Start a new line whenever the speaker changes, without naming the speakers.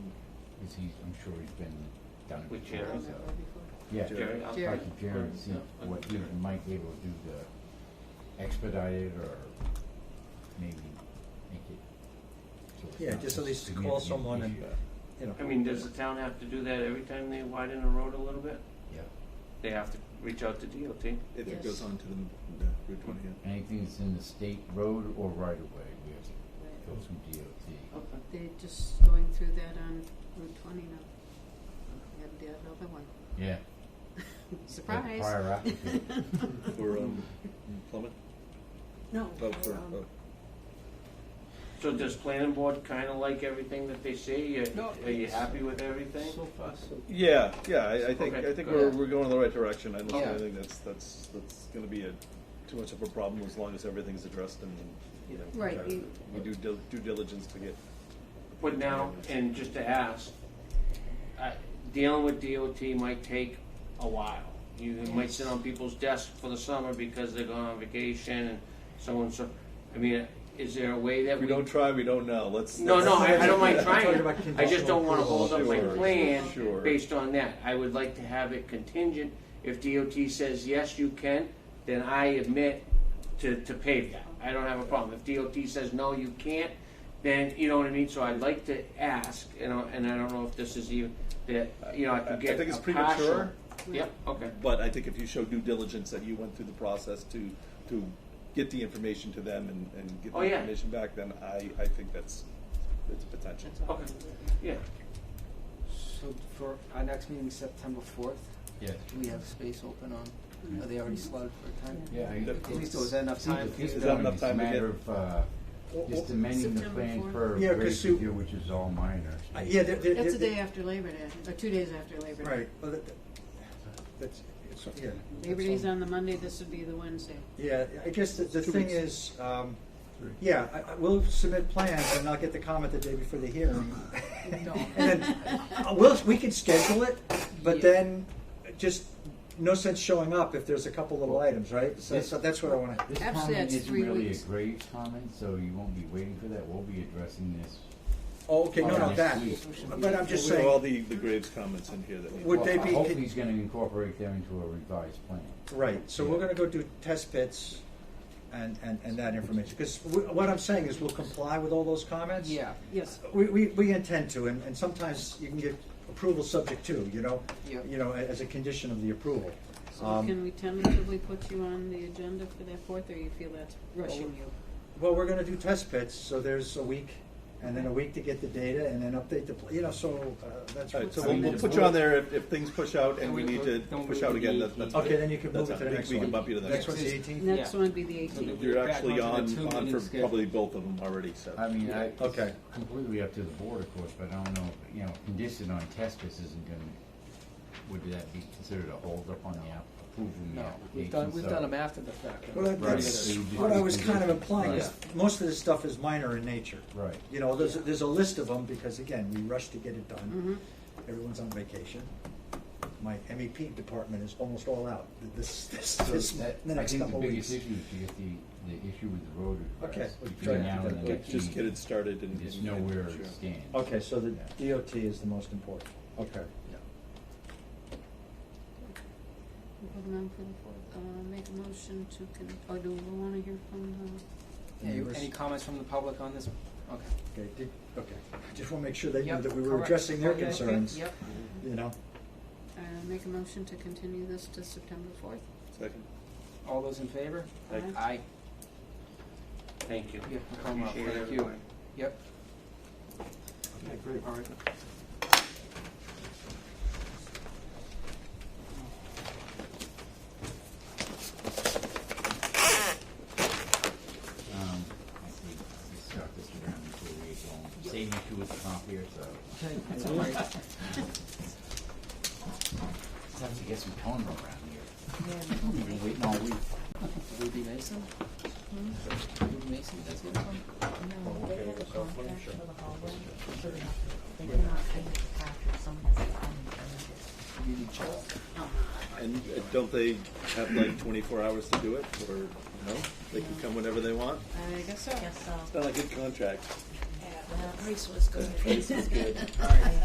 because he's, I'm sure he's been done.
With
before, so-
Jerry.
before.
Yeah.
Jerry, I'll
Jerry.
Talk to Jerry and see
Yeah.
what he and Mike be able to do to expedite it or maybe make it. so it's
Yeah,
not
just
a
at least call
significant
someone and,
issue.
you know.
I mean, does the town have to do that every time they widen a road a little bit?
Yeah,
They have to reach out to DOT?
If
Yes.
it goes on to the, the Route 20, yeah.
anything that's in the state road or right of way, we have to
Right.
go through DOT.
Okay.
They're just going through that on Route 20 now. They have the other one.
Yeah.
Surprise.
prior applicant.
for um, Plymouth.
No.
Oh, for
um,
oh,
So does planning board kind of like everything that they see? Are-
No,
Are you
it's-
happy with everything?
so far so
Yeah, yeah, I, I think,
Okay,
I think
good.
we're, we're going in the right direction, I don't,
Yeah.
I think that's, that's, that's gonna be a, too much of a problem as long as everything's addressed and, you know.
Right,
try to-
you-
We do dil- due diligence to get,
But now, and just to ask, I- dealing with DOT might take a while. You might sit on people's desks for the summer because they're going on vacation and so and so. I mean, is there a way that
if we
we?
don't try, we don't know, let's.
No, no, I, I don't mind
Yeah.
Talking
trying.
about
I just don't wanna
conditional
hold up my
approval.
plan
Sure, sure.
based on that. I would like to have it contingent. If DOT says, yes, you can, then I admit to, to pave that. I don't have a problem. If DOT says, no, you can't, then, you know what I mean? So I'd like to ask, you know, and I don't know if this is even, that, you know, I
I- I
could get a partial.
think it's premature.
Yep, okay.
But I think if you show due diligence that you went through the process to, to get the information to them and, and get
Oh,
the
yeah.
information back, then I, I think that's, it's a potential.
That's all.
Okay. Yeah,
So for our next meeting, September fourth,
Yes.
do we have space open on, are they already slotted for a time?
Yeah. I-
At
At least there was enough time for you
It's
Is
to.
that enough time to
It's a matter
get-
of, uh,
Or-
just
or-
amending the
September
plan
fourth?
for
Yeah, 'cause
rate
you-
review, which is all minor.
I- Yeah, they're, they're.
That's the
they're-
day after Labor Day, or two days after Labor Day.
Right, well, that, that's, it's, yeah.
Labor
that's
Day's
all.
on the Monday, this would be the Wednesday.
Yeah, I guess the, the
Two
thing
weeks.
is, um,
Three.
yeah, I, I will submit plans and I'll get the comment the day before the hearing. And then, uh, we'll, we can schedule it, but
Yeah.
then just no sense showing up if there's a couple little items, right? So,
Yes.
so that's what I wanna,
This
Actually,
comment
that's
isn't
three
really a
weeks.
grave comment, so you won't be waiting for that. We'll be addressing this.
oh, okay, no, no,
Next
that,
week.
but I'm just
We have all
saying,
the, the Graves comments in here that need.
Would
Well,
they be-
Hopefully he's gonna incorporate them into a revised plan.
right, so we're gonna go do test pits and, and, and that information. Cause we- what I'm saying is we'll comply with all those comments.
Yeah,
Yes.
We, we, we intend to, and, and sometimes you can get approval subject to, you know?
Yeah.
You know, a- as a condition of the approval.
So
Um,
can we tentatively put you on the agenda for that fourth, or you feel that's rushing you?
Well, we're gonna do test pits, so there's a week, and then a week to get the data, and then update the, pl- you know, so, uh, that's.
All right, so
I
we'll,
mean,
we'll
it's-
put you on there if, if things push out and
Then
we
we-
need to
then we
push out
would
again,
be-
that's, that's.
Okay, then you can
that's
move it
fine.
to the
We-
next
We
one.
can bump you to the
Next
next
one's
one.
the
Next is-
eighteenth?
Next
Yeah.
one would be the
So the-
eighteenth.
You're
Back
actually
onto
on,
the
on
two-meeting
for
schedule.
probably both of them already, so.
I mean, I,
Okay.
it's completely up to the board, of course, but I don't know, you know, condition on test pits isn't gonna, would that be considered a holdup on the app, approving the
no,
application?
we've done, we've
So-
done them after the fact.
Well,
Right.
that's
So you just-
what I was kind of implying,
Right.
is most of this stuff is minor in nature.
Right.
You know, there's, there's a list of them, because again, we rush to get it done,
Mm-hmm.
everyone's on vacation. My MEP department is almost all out, this, this,
So
this,
that,
the
I
next
think the
couple weeks.
biggest issue is to get the, the issue with the road
Okay,
addressed.
we'll try
Between
to
now
get
and the
that.
next
Just get
meeting,
it started and.
Just
and-
know where
sure.
it stands.
Okay, so the
Yeah.
DOT is the most important, okay.
Hold on for the fourth, uh, make a motion to, con- oh, do we wanna hear from, uh,
Yeah, you-
Members?
any comments from the public on this? Okay.
Okay, did, okay. I just want to make sure they knew
Yep,
that we were
correct.
addressing their
Okay, okay,
concerns,
Yep.
you know?
uh, make a motion to continue this to September fourth?
Second.
All those in favor?
Aye.
Aye.
thank you.
Yeah, no problem.
Appreciate
Thank you.
everybody.
Yep.
Okay, great.
All right.
Um, I think we start this around before we go home. Same issue with the copier, so
That's all right.
sometimes you get some tone around here. We've been waiting all week.
Ruby Mason? Ruby Mason, that's good one?
No, they have a contract for the hallway, so they have to, they cannot pay the contractor, someone has to come and change it.
Ruby Cho.
And uh, don't they have like twenty-four hours to do it, or, no? They can come whenever they want?
I guess so.
Yes, so,
It's not a good contract.
well, Reese was good. Reese was good.